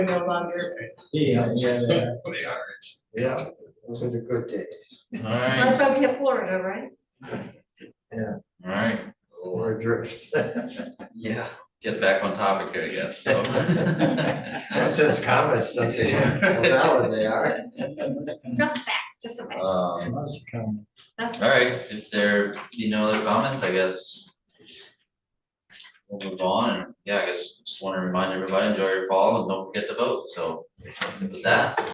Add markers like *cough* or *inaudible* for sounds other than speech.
no longer. Yeah, yeah, yeah, They are. yeah, those are the good days. That's Alright, why we have Florida, right? alright, Or adrift. yeah, get back on topic here, I guess, so. *laughs* That says comments, doesn't it? Well, Yeah. now they are. Just fact, just a fact. Um, That's alright, if there, you know, other comments, I guess. We'll move on, and yeah, I guess just wanna remind everybody, enjoy your fall and don't forget to vote, so with that.